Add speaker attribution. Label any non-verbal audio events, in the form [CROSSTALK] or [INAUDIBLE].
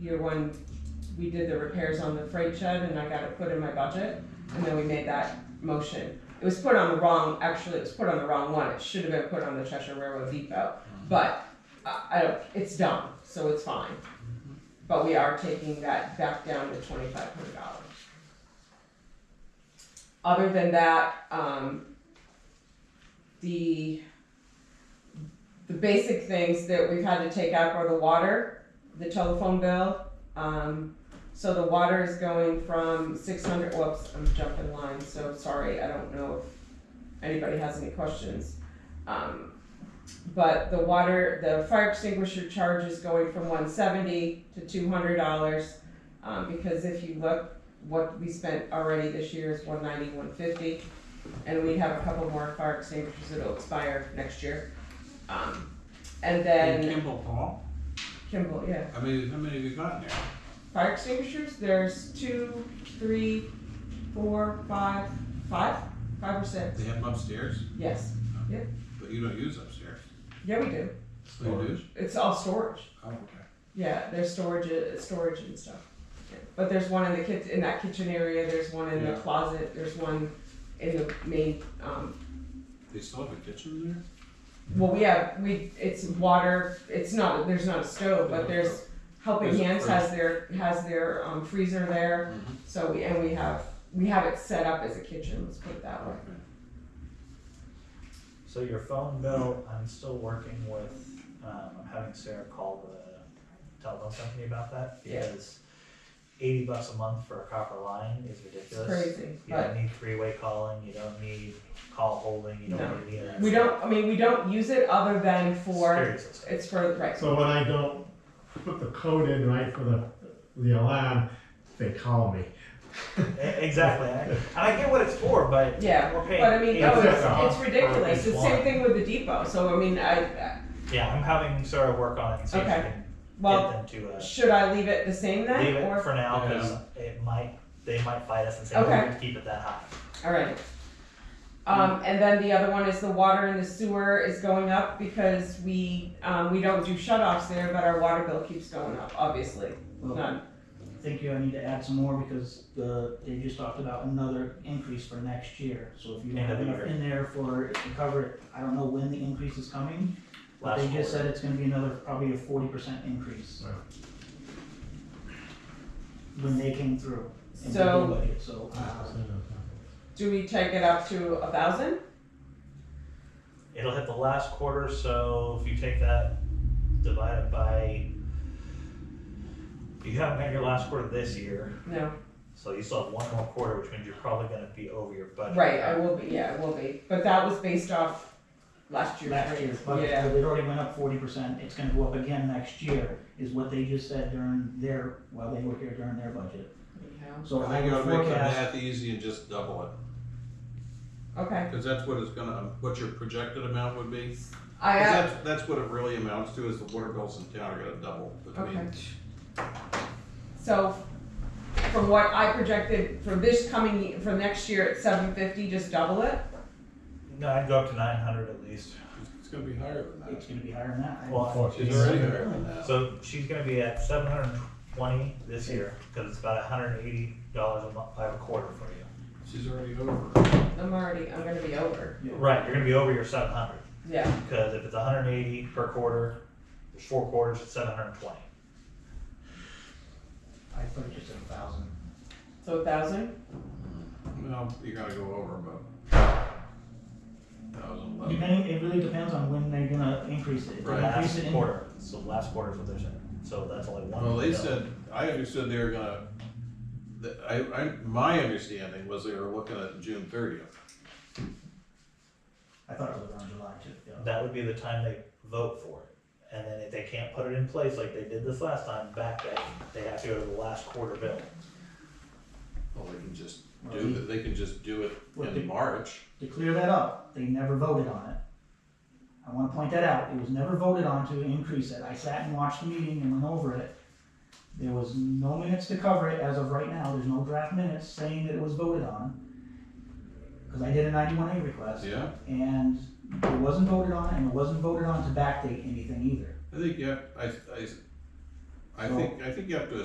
Speaker 1: year one, we did the repairs on the freight shed and I got it put in my budget, and then we made that motion. It was put on the wrong, actually, it was put on the wrong one, it should have been put on the Cheshire Railroad Depot, but I, I don't, it's done, so it's fine. But we are taking that back down to twenty-five hundred dollars. Other than that, um, the, the basic things that we've had to take out are the water, the telephone bill. Um, so the water is going from six hundred, whoops, I'm jumping lines, so sorry, I don't know if anybody has any questions. Um, but the water, the fire extinguisher charge is going from one seventy to two hundred dollars. Um, because if you look, what we spent already this year is one ninety, one fifty. And we have a couple more fire extinguishers that'll expire next year. Um, and
Speaker 2: In
Speaker 1: then
Speaker 2: Kimball Hall,
Speaker 1: Kimball, yeah,
Speaker 2: I mean, how many have you got there?
Speaker 1: fire extinguishers, there's two, three, four, five, five, five or six,
Speaker 2: They have them upstairs,
Speaker 1: yes.
Speaker 2: but you don't use upstairs.
Speaker 1: Yeah, we do,
Speaker 2: Oh, you do?
Speaker 1: it's all storage,
Speaker 2: Oh, okay.
Speaker 1: yeah, there's storage, uh, storage and stuff. Yeah. But there's one in the kit, in that kitchen area, there's one in the
Speaker 2: Yeah.
Speaker 1: closet, there's one in the main, um,
Speaker 2: They still have a kitchen
Speaker 1: well, we have, we, it's water, it's not, there's not a stove, but there's, Helping
Speaker 2: There's a
Speaker 1: Hands
Speaker 2: freezer.
Speaker 1: has their, has their, um, freezer there,
Speaker 2: there?
Speaker 1: so we, and we have, we have it set up as a kitchen, let's put it that way.
Speaker 2: Okay.
Speaker 3: So your phone bill, I'm still working with, um, I'm having Sarah call the telephone company about that
Speaker 1: Yeah.
Speaker 3: because eighty bucks a month for a copper line is ridiculous.
Speaker 1: Crazy,
Speaker 3: You
Speaker 1: but-
Speaker 3: don't need three-way calling, you don't need call holding, you
Speaker 1: No.
Speaker 3: don't need any of that.
Speaker 1: We
Speaker 3: stuff.
Speaker 1: don't, I mean, we don't use it other than
Speaker 3: It's
Speaker 1: for,
Speaker 3: security system.
Speaker 1: it's for, right,
Speaker 4: So when I don't put the code in right for the, the alarm, they call me. [LAUGHS]
Speaker 3: E- Exactly, I- and I get what it's for, but
Speaker 1: yeah.
Speaker 3: we're
Speaker 1: But
Speaker 3: paying
Speaker 1: I mean,
Speaker 3: eighty
Speaker 1: oh,
Speaker 3: bucks a
Speaker 1: it's,
Speaker 3: month
Speaker 1: it's
Speaker 3: for
Speaker 1: ridiculous,
Speaker 3: each
Speaker 1: the
Speaker 3: one.
Speaker 1: same thing with the depot, so I mean, I,
Speaker 3: Yeah, I'm having Sarah work on it and see if she
Speaker 1: Okay.
Speaker 3: can
Speaker 1: well,
Speaker 3: get them to, uh,
Speaker 1: should I leave it the same
Speaker 3: leave
Speaker 1: then,
Speaker 3: it
Speaker 1: or,
Speaker 3: for now,
Speaker 2: Yeah.
Speaker 3: cause it might, they might fight us and say,
Speaker 1: Okay.
Speaker 3: we keep it that high.
Speaker 1: alright.
Speaker 3: Mm.
Speaker 1: Um, and then the other one is the water and the sewer is going up because we, um, we don't do shut-offs there, but our water bill keeps going up, obviously,
Speaker 5: Well,
Speaker 1: none,
Speaker 5: I think you need to add some more because the, they just talked about another increase for next year. So if you don't
Speaker 3: End of
Speaker 5: have
Speaker 3: the
Speaker 5: enough
Speaker 3: year.
Speaker 5: in there for, it to cover it, I don't know when the increase is coming.
Speaker 3: Last
Speaker 5: But they just said
Speaker 3: quarter.
Speaker 5: it's gonna be another, probably a forty percent increase.
Speaker 4: Wow.
Speaker 5: When they came through and did the
Speaker 1: so,
Speaker 5: budget, so, uh,
Speaker 1: do we take it up to a thousand?
Speaker 3: It'll hit the last quarter, so if you take that, divide it by. You haven't had your last quarter this year,
Speaker 1: No,
Speaker 3: so you still have one more quarter, which means you're probably gonna be over your budget.
Speaker 1: right, I will be, yeah, I will be, but that was based off last year's
Speaker 5: last
Speaker 1: rate.
Speaker 5: year's budget,
Speaker 1: Yeah.
Speaker 5: so it already went up forty percent. It's gonna go up again next year, is what they just said during their, while they were here during their budget.
Speaker 1: Yeah.
Speaker 5: So
Speaker 2: I
Speaker 5: I
Speaker 2: think
Speaker 5: would
Speaker 2: I'll make the
Speaker 5: forecast,
Speaker 2: math easy and just double it,
Speaker 1: Okay.
Speaker 2: because that's what it's gonna, what your projected amount would be. 'Cause
Speaker 1: I uh,
Speaker 2: that's, that's what it really amounts to, is the water bills in town are gonna double between.
Speaker 1: uh, Okay. so from what I projected for this coming ye- for next year at seven fifty, just double it.
Speaker 3: No, I'd go up to nine hundred at least,
Speaker 2: It's gonna be higher than
Speaker 5: it's
Speaker 2: that.
Speaker 5: gonna be higher than that. I-
Speaker 3: well,
Speaker 2: It's already higher than that.
Speaker 3: so she's gonna be at seven hundred and twenty this year, cause it's about hundred and eighty dollars a month, a quarter for you.
Speaker 2: She's already over.
Speaker 1: I'm already I'm gonna be over.
Speaker 3: Right, you're gonna be over your seven hundred,
Speaker 1: Yeah.
Speaker 3: cause if it's hundred and eighty per quarter, there's four quarters, it's seven hundred and twenty.
Speaker 5: I purchased a thousand.
Speaker 1: So a thousand.
Speaker 2: Well, you gotta go over about thousand eleven.
Speaker 5: Depending, it really depends on when they're gonna increase it. If they increase
Speaker 3: Last
Speaker 5: it in-
Speaker 3: quarter, so last quarter is what they're saying, so that's only one.
Speaker 2: Well, they
Speaker 3: bill.
Speaker 2: said, I understood they were gonna, that, I, I, my understanding was they were looking at June thirtieth.
Speaker 5: I thought it was around July too, yeah.
Speaker 3: That would be the time they vote for it, and then if they can't put it in place like they did this last time, back that, they have to go to the last quarter bill.
Speaker 2: Well, they can just
Speaker 5: Well,
Speaker 2: do,
Speaker 5: they-
Speaker 2: that. they can just do it
Speaker 5: Well,
Speaker 2: in
Speaker 5: they-
Speaker 2: March.
Speaker 5: To clear that up, they never voted on it. I wanna point that out, it was never voted on to increase it, I sat and watched the meeting and went over it. There was no minutes to cover it as of right now, there's no draft minutes saying that it was voted on. Cause I did a ninety-one A request,
Speaker 2: Yeah,
Speaker 5: and it wasn't voted on, and it wasn't voted on to backdate anything either.
Speaker 2: I think, yeah, I, I, I
Speaker 5: So-
Speaker 2: think, I think you have to